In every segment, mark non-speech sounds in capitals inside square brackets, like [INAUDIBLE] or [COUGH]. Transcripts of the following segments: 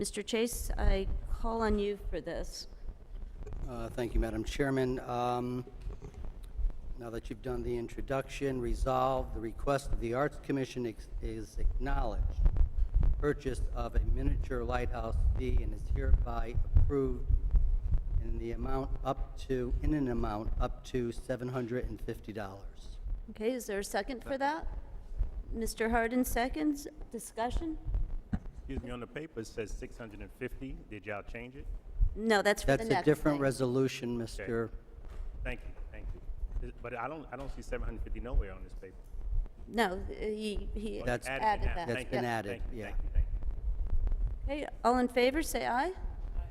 Mr. Chase, I call on you for this. Uh, Thank you, Madam Chairman. Um, Now that you've done the introduction, resolved, the request of the Arts Commission ex- is acknowledged. Purchase of a miniature lighthouse fee and is hereby approved in the amount up to, in an amount up to $750. Okay, is there a second for that? Mr. Hardin seconds. Discussion? Excuse me, on the paper, it says 650. Did y'all change it? No, that's for the That's next a different thing. resolution, Mr. Thank you, thank you. Is- But I don't, I don't see 750 nowhere on this paper. No, he, he Oh, you That's- it added that. now. That's Thank you, been thank added, you, yeah. thank you, thank you. Okay, all in favor, say aye.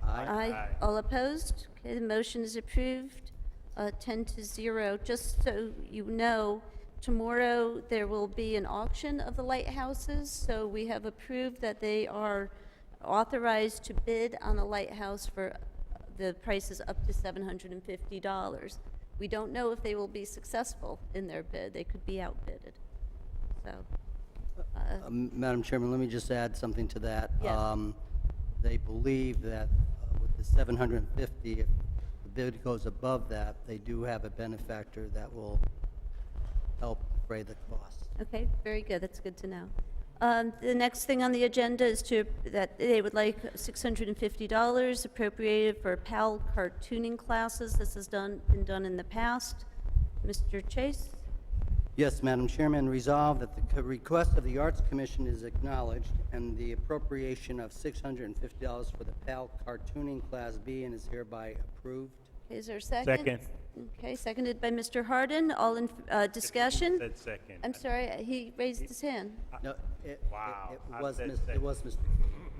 Aye. Aye. All opposed? Okay, the motion is approved, uh, 10 to 0. Just so you know, tomorrow there will be an auction of the lighthouses, so we have approved that they are authorized to bid on a lighthouse for the prices up to $750. We don't know if they will be successful in their bid. They could be outbidded. So, uh, Um, Madam Chairman, let me just add something to that. Yes. Um, They believe that uh, with the 750, if the bid goes above that, they do have a benefactor that will help defray the cost. Okay, very good, that's good to know. Um, The next thing on the agenda is to, that they would like $650 appropriated for PAL cartooning classes. This has done, been done in the past. Mr. Chase? Yes, Madam Chairman, resolved that the co- request of the Arts Commission is acknowledged and the appropriation of $650 for the PAL cartooning Class B and is hereby approved. Is there a second? Second. Okay, seconded by Mr. Hardin. All in, uh, discussion? Said second. I'm sorry, uh, he raised his hand. No, it- it- Wow, it I was said mis- It second. was Mr.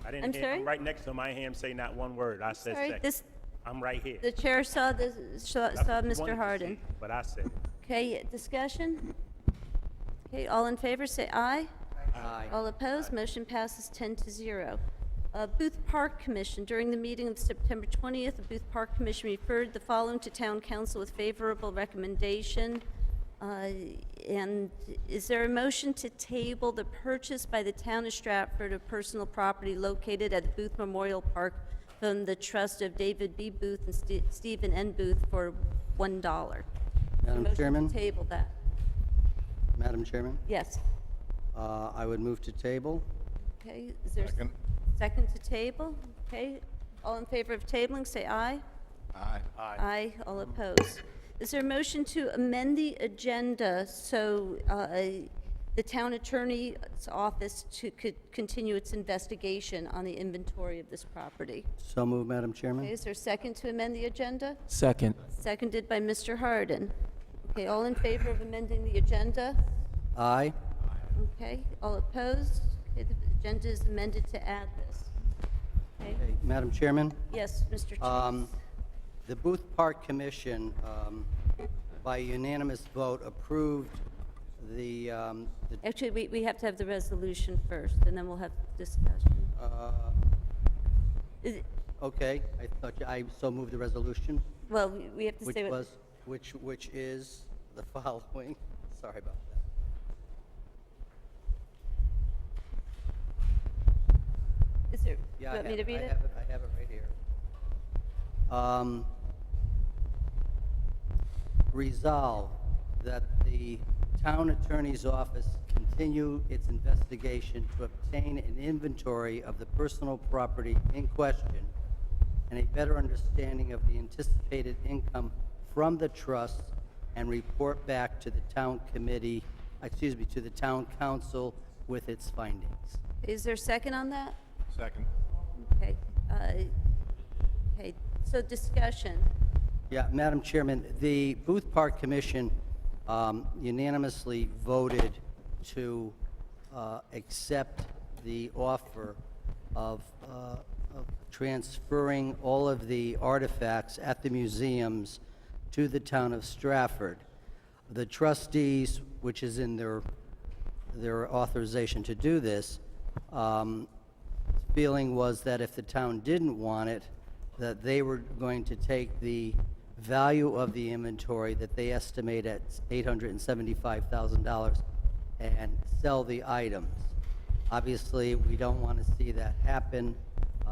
I I'm didn't hear, sorry? I'm right next to my hand, say not one word. I said sorry, second. this- I'm right here. The chair saw the, saw I saw wanted to see Mr. Hardin. it, But I said, it. Okay, discussion? Okay, all in favor, say aye. Aye. All opposed, motion passes 10 to 0. Uh, Booth Park Commission, during the meeting of September 20th, the Booth Park Commission referred the following to Town Council with favorable recommendation. Uh, And is there a motion to table the purchase by the town of Stratford of personal property located at the Booth Memorial Park from the trust of David B. Booth and Ste- Stephen N. Booth for $1? Madam Motion to Chairman, table that, Madam Chairman, yes. uh, I would move to table. Okay, is there Second. second to table? Okay, all in favor of tabling, say aye. Aye. Aye, all opposed. Is there a motion to amend the agenda so uh, the town attorney's office to, could continue its investigation on the inventory of this property? So move, Madam Chairman. Okay, is there a second to amend the agenda? Second. Seconded by Mr. Hardin. Okay, all in favor of amending the agenda? Aye. Okay, all opposed? Okay, the agenda is amended to add this. Okay, Okay, Madam Chairman, yes, Mr. um, Chase? the Booth Park Commission, um, by unanimous vote, approved the, um, the, Actually, we, we have to have the resolution first, and then we'll have discussion. uh, Is it- okay, I thought, you- I so moved the resolution, Well, we- we have to which say what, was, which, which is the [LAUGHS] following. Sorry about that. is there, do you Yeah, I want me have to it, I read it? have it, I have it right here. Um, resolve that the town attorney's office continue its investigation to obtain an inventory of the personal property in question and a better understanding of the anticipated income from the trust and report back to the town committee, excuse me, to the town council with its findings. Is there a second on that? Second. Okay, uh, okay, so discussion. Yeah, Madam Chairman, the Booth Park Commission um, unanimously voted to uh, accept the offer of uh, of transferring all of the artifacts at the museums to the town of Stratford. The trustees, which is in their, their authorization to do this, um, feeling was that if the town didn't want it, that they were going to take the value of the inventory that they estimate at $875,000 and sell the items. Obviously, we don't want to see that happen,